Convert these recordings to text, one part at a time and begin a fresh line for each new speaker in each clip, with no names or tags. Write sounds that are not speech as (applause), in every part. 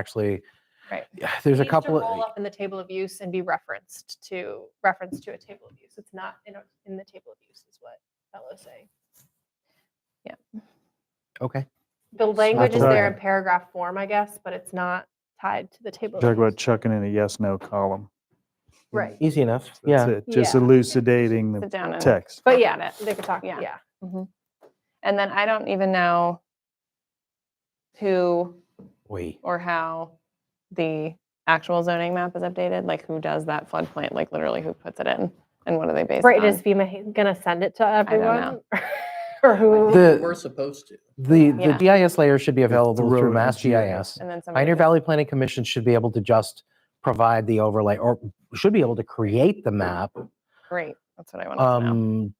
actually.
Right.
Yeah, There's a
needs to
couple
Roll
of,
up in the table of use and be referenced to, referenced to a table of use. It's not in, a- in the table of use is what Bella's saying.
okay.
The language is
what I
there in
had.
paragraph form, I guess, but it's not tied to the table. of
Talk about
use.
chucking in a yes, no column.
Right.
Easy enough.
That's
Yeah.
it, Just
Yeah.
elucidating the
sit down and.
text.
But yeah, they could talk,
Yeah.
yeah.
Mhm. And then I don't even know who
Wait.
or how the actual zoning map is updated, like who does that floodplain, like literally who puts it in and what are they based
Right, is
on?
FEMA ha- gonna send it to
don't know.
everyone? (laughs) Or who?
The,
We're supposed to.
the, the
Yeah.
GIS layer should be available
road
through
and
Mass
GIS.
GIS.
And then somebody.
Pioneer
does-
Valley Planning Commission should be able to just provide the overlay or should be able to create the map.
Great, that's what I wanted to know.
Um,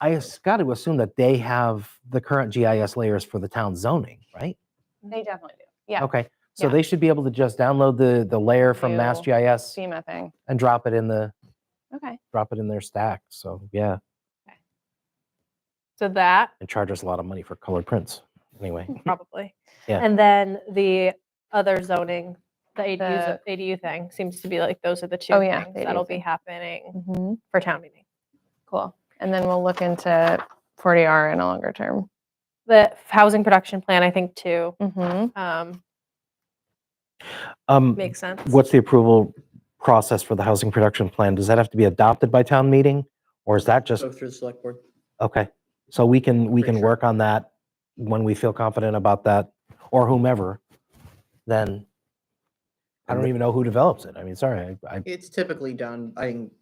I s- got to assume that they have the current GIS layers for the town zoning, right?
They definitely do. Yeah,
Okay. So
Yeah.
they should be able to just download the, the layer from Mass
New
GIS
SEMA thing.
and drop it in the,
Okay.
drop it in their stack. So yeah.
So that,
and charge us a lot of money for colored prints. Anyway,
Hmm. probably.
Yeah.
And then the other zoning, the ADU,
The-
ADU thing seems to be like, those are the two
Oh, yeah,
things
the ADU
that'll be
thing.
happening
Mhm.
for town meeting.
Cool. And then we'll look into 40R in a longer term.
The housing production plan, I think, too,
Mhm.
um,
um,
makes sense.
what's the approval process for the housing production plan? Does that have to be adopted by town meeting, or is that just
Go through the select board.
okay? So we can we
Pretty
can
sure.
work on that when we feel confident about that, or whomever. Then I don't even know who develops it. I mean, sorry, I, I
It's typically done, I think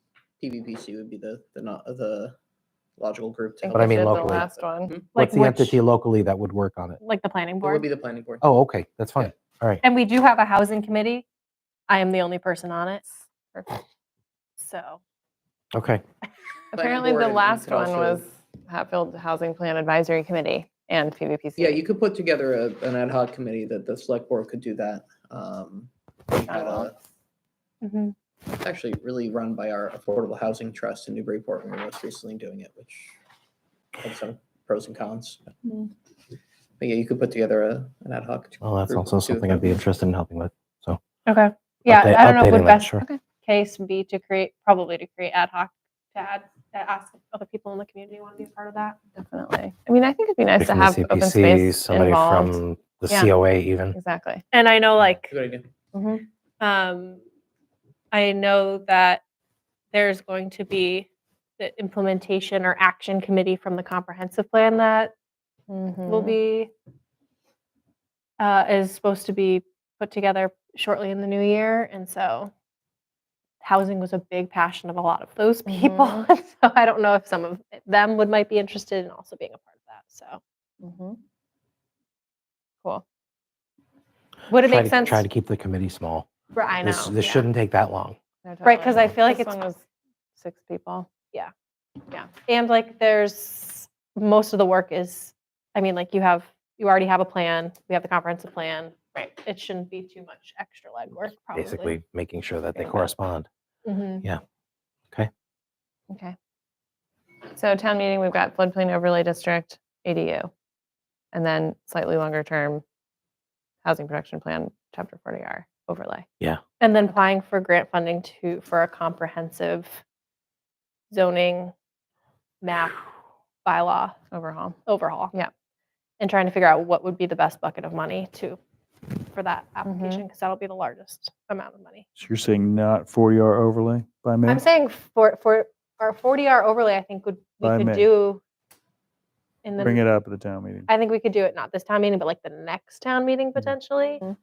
PVPC would be the, the, not the logical group. to
think
But I
we
mean
did the
locally.
Last
Mm-hmm.
one.
Like
what's the
which-
entity locally that would work on it?
Like the planning
It would be
board.
the planning board.
Oh, okay, that's fine. All right.
And we do have a housing committee. I am the only person on it. So,
Okay.
Apparently
board
the
and- and
last
could
one
also-
was Hatfield Housing Plan Advisory Committee and PVPC.
Yeah, you could put together a, an ad hoc committee that the select board could do that. Um, we had
well.
a-
mhm.
It's actually really run by our Affordable Housing Trust in Newburyport, and we were most recently doing it, which had some pros and cons. But
Mm.
but yeah, you could put together a, an ad hoc.
Well, that's
group
also
of two of
something I'd
them.
be interested in helping with.
okay. Yeah,
Upda-
I don't know,
updating
would
that,
best
sure.
case be to create, probably to create ad hoc, to add, to ask if other people in the community want to be a part of that.
Definitely. I mean, I think it'd be nice to
Somebody
have
from the
open
CPC,
space
somebody
involved.
from the
Yeah.
COA even.
Exactly.
And I know like
Good idea.
um, I know that there's going to be the implementation or action committee from the comprehensive plan that will
Mm.
Mhm.
be uh, is supposed to be put together shortly in the new year, and so housing was a big passion of a lot of those (laughs) people.
Mm-hmm.
Mhm.
and so I don't know if some of them would might be interested in also being a part of that. So
Mhm.
would it
Try
make
to-
sense?
Try to keep the committee small.
for, I know
This, this
yeah.
shouldn't take that long.
No,
Right, 'cause
totally.
I feel like
This
it's-
one was Six people.
And like there's most of the work is, I mean, like you have, you already have a plan, we have the comprehensive plan. Right. It shouldn't be too much extra legwork, probably.
Basically, making sure that they
Yeah.
correspond.
Mhm.
Okay. So town meeting, we've got floodplain overlay district, ADU. And then slightly longer term, housing production plan, chapter 40R overlay.
And then applying for grant funding to, for a comprehensive zoning map bylaw
overhaul.
overhaul.
Yeah.
And trying to figure out what would be the best bucket of money to, for that application,
Mm-hmm.
because that'll be the largest amount of money.
So you're saying not 40R overlay by May?
I'm saying for, for, our forty hour overlay, I think would, we
By
could
May.
do in
Bring
the,
it up at the town meeting.
I think we could do it, not this town meeting, but like the next town meeting
Mm-hmm.
potentially.
Mhm.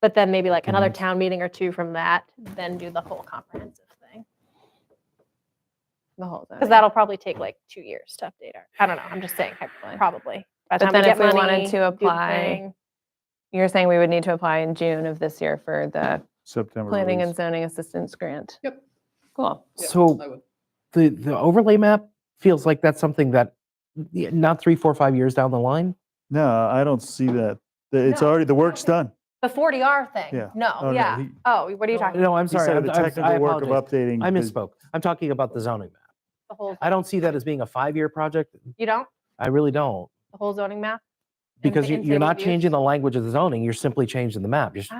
But then maybe like another
Mhm.
town meeting or two from that, then do the whole comprehensive thing.
The whole thing.
Because that'll probably take like two years to update our, I don't know, I'm just
(sighs)
saying,
Probably.
probably. By the
But
time
then if
get
we wanted
money,
to
do the
apply-
thing.
You're saying we would need to apply in June of this year for the
September
planning and
release.
zoning assistance grant?
Yep.
Cool.
Yeah,
So
I would.
the, the overlay map feels like that's something that, yeah, not three, four, five years down the line?
No, I don't see that. The- It's
No,
already, the work's done.
The forty R thing,
Yeah. Oh,
no,
no,
yeah.
he-
Oh, what are you talking,
No, I'm
He
sorry.
said
I'm-
the
I'm- I
technical work of
apologize.
updating.
I
the-
misspoke. I'm talking about the zoning map.
the whole,
I don't see that as being a five-year project.
you don't,
I really don't.
the whole zoning map?
Because
the
you- you're not
intended use.
changing the language of the zoning, you're simply changing the map. You're s-